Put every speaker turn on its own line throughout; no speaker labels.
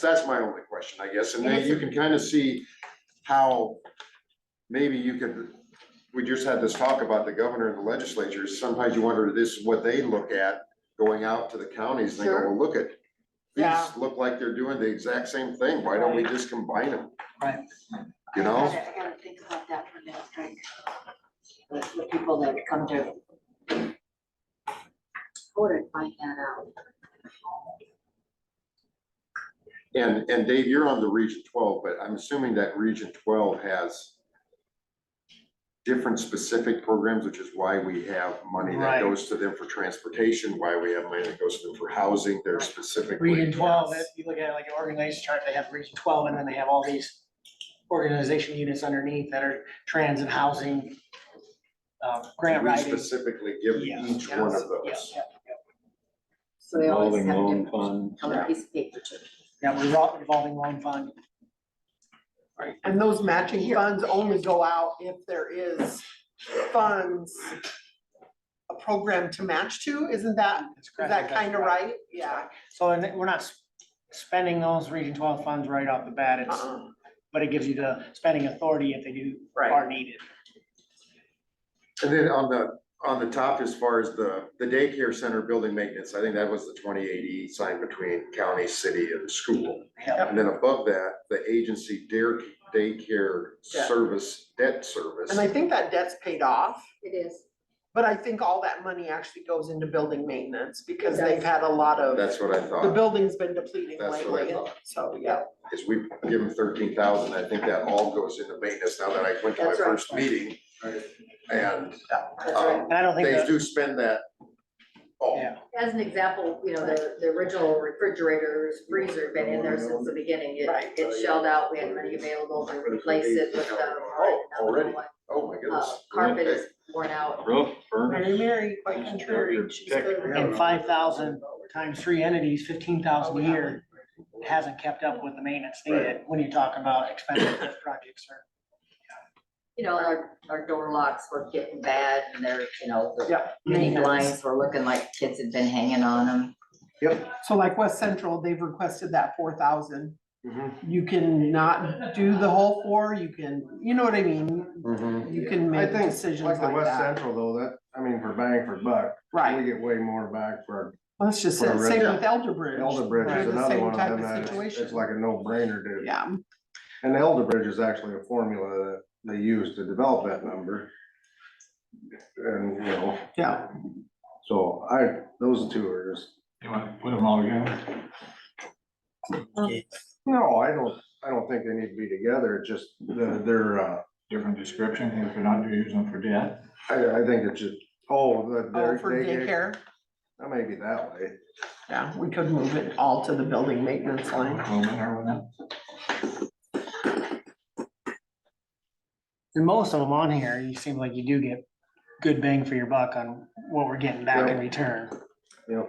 That's my only question, I guess, and
And
then
it's-
you can kind of see how maybe you could, we just had this talk about the governor and the legislature, sometimes you wonder, this is what they look at going out to the counties, and they go,
Sure.
well, look at,
Yeah.
these look like they're doing the exact same thing, why don't we just combine them?
Right.
You know?
I gotta- I gotta think about that for next week. The, the people that come to. What did find that out?
And, and Dave, you're on the region twelve, but I'm assuming that region twelve has different specific programs, which is why we have money that
Right.
goes to them for transportation, why we have money that goes to them for housing, they're specifically.
Region twelve, if you look at like an organization chart, they have region twelve, and then they have all these organization units underneath that are trans and housing, um, grant
We
writing.
specifically give
Yeah,
each one of
Yeah,
those.
yeah,
So they always
Revolving
have a
loan
different
fund.
color piece of paper to.
yeah, revol- revolving loan fund,
And those matching funds only go out if there is funds, a program to match to, isn't that,
that's
is
correct.
that kind of right? Yeah.
So and then we're not s- spending those region twelve funds right off the bat, it's,
Uh-uh.
but it gives you the spending authority if they do
Right.
are needed.
And then on the, on the top, as far as the, the daycare center building maintenance, I think that was the twenty eighty signed between county, city and school.
Yeah.
And then above that, the agency dare, daycare
Yeah.
service, debt service.
And I think that debt's paid off,
It is.
but I think all that money actually goes into building maintenance because
It does.
they've had a lot of,
That's what I
the
thought,
building's been depleting
That's what I
lately.
thought.
So, yeah.
is we give them thirteen thousand, I think that all goes into maintenance now that I went to my
That's right.
first meeting. And,
That's right.
um,
And I don't think
they
that,
do spend that. all.
yeah,
As an example, you know, the, the original refrigerators, freezer been in there since the beginning. It,
Right.
it shelled out, we had money available to replace it with the.
Oh, already? Oh, my
Uh,
goodness.
Carpet
Okay.
is worn out.
Roof,
Mary
furnace,
Mary, quite contrary. she's been-
and five thousand times three entities, fifteen thousand a year. hasn't kept up with the maintenance needed when you talk about expensive projects or.
you know, our, our door locks were getting bad and they're, you know, the
Yeah.
mini blinds were looking like kids had been hanging on them.
So like West Central, they've requested that four thousand.
Mhm.
you can not do the whole four, you can, you know what I mean?
Mm-hmm.
You can
I
make
think,
decisions
Like the
like
West
that,
Central though, that, I mean, for bang for buck, we
right?
get way more back for
Well, Let's just
For
say,
a
same
resident.
with Elder Bridge.
Elder Bridge
They're
is
the
another
same
one of
type
them that it's-
situation.
it's like a no brainer to.
Yeah,
And Elder Bridge is actually a formula that they use to develop that number. And, you know,
yeah,
so I, those two are just,
you want to put them all together?
no, I don't, I don't think they need to be together, it's just, they're,
Mm-hmm.
they're, uh,
Different description, if you're not using them for debt.
I, I think it's just, oh, the,
oh,
they're,
for
they get,
daycare,
that may be that way.
yeah, we could move it all to the building maintenance line.
Little bit or whatever.
And most of them on here, you seem like you do get good bang for your buck on what we're getting back in return.
Yep,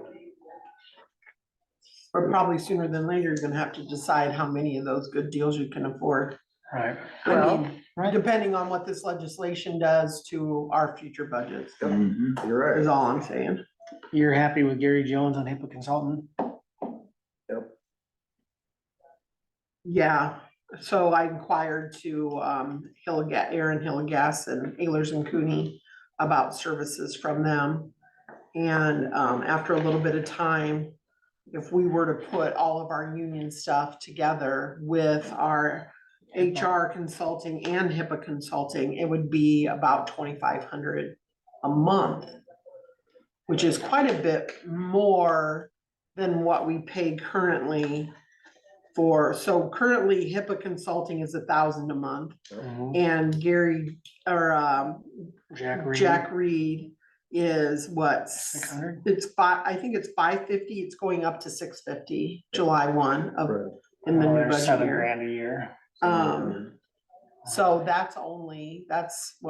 But probably sooner than later, you're gonna have to decide how many of those good deals you can afford.
Right.
I mean, depending on what this legislation does to our future budgets,
Mm.
Mm-hmm.
you're right.
is all I'm saying.
You're happy with Gary Jones on HIPAA consultant?
Yeah, so I inquired to um Hillegas, Aaron Hillegas and Ehlers and Cooney about services from them. And um after a little bit of time, if we were to put all of our union stuff together with our HR consulting and HIPAA consulting, it would be about twenty-five hundred a month, which is quite a bit more than what we pay currently for, so currently HIPAA consulting is a thousand a month and Gary or um
Jack Reed.
Jack Reed is what?
Six hundred?
It's five, I think it's five fifty, it's going up to six fifty, July one of
Right.
in the
Well,
new
there's
budget
Seven
year.
grand a year.
Um, so that's only, that's what